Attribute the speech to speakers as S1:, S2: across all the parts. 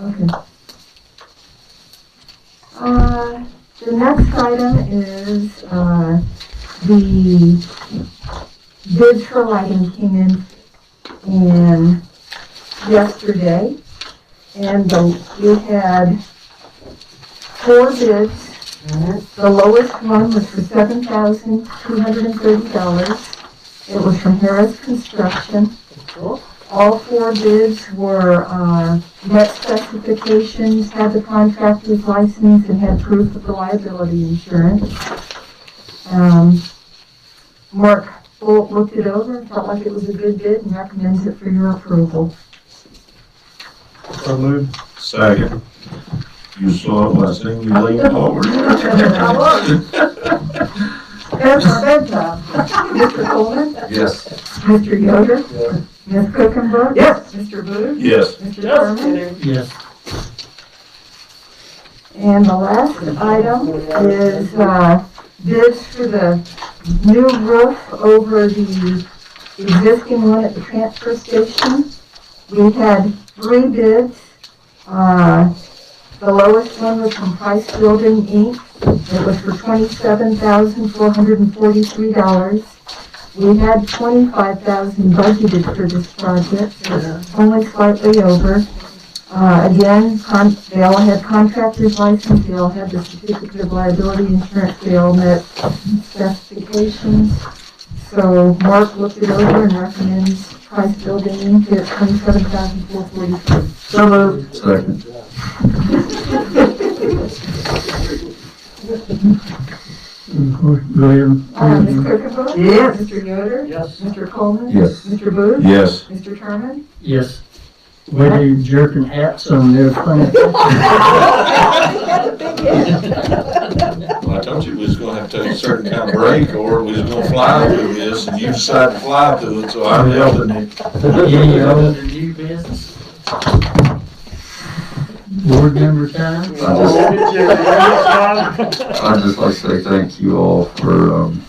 S1: Okay. Uh, the next item is, uh, the bids for lighting came in, in yesterday. And the, we had four bids. The lowest one was for seven thousand two hundred and thirty dollars. It was from Harris Construction. All four bids were, uh, met specifications, had the contractor's license, and had proof of the liability insurance. Um, Mark Bolt looked it over and felt like it was a good bid and recommends it for your approval.
S2: So moved.
S3: Second. You saw it last thing, you leaned forward.
S1: That's our bid job. Mr. Coleman?
S3: Yes.
S1: Mr. Yoder? Ms. Cookenberg? Yes. Mr. Booth?
S3: Yes.
S1: Mr. Thurman?
S2: Yes.
S1: And the last item is, uh, bids for the new roof over the existing one at the transfer station. We had three bids. Uh, the lowest one was from Price Building Inc. It was for twenty-seven thousand, four hundred and forty-three dollars. We had twenty-five thousand budgeted for this project, so it's only slightly over. Uh, again, con, they all had contractor's license, they all had the certificate of liability insurance, they all met specifications. So Mark looked it over and recommends price building Inc. at twenty-seven thousand four forty-three.
S2: So moved.
S3: Second.
S2: Go
S1: Uh, Ms.
S2: ahead.
S1: Kirkendall? Yes. Mr. Uh, Yoder?
S2: Yes.
S1: Mr. Coleman?
S3: Yes.
S1: Mr. Booth?
S3: Yes.
S1: Mr. Terman?
S2: Yes. Way they jerking hats on there, funny.
S3: Well, I told you we was gonna have to take a certain kind of break, or we was gonna fly through this, and you decided to fly through it, so I'm helping you.
S2: Any other new business? Board member time?
S4: I just- I'd just like to say thank you all for um,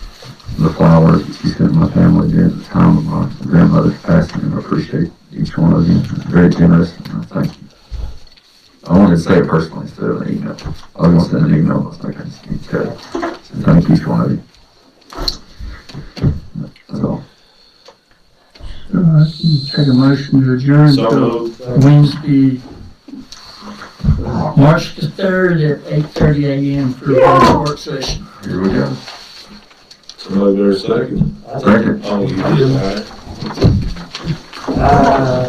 S4: the flowers that you sent my family during the time of my grandmother's passing, and I appreciate each one of you. It's very generous, and I thank you. I wanted to say it personally instead of an email. I was going to send an email, but I couldn't speak to it. So thank each one of you. That's all.
S2: Uh, Take a motion to adjourn
S3: So
S2: till
S3: moved.
S2: Wednesday, March the third at eight thirty AM for the work session.
S4: Here we go.
S3: Somebody better second.
S4: Second.
S3: Oh, you did, all right.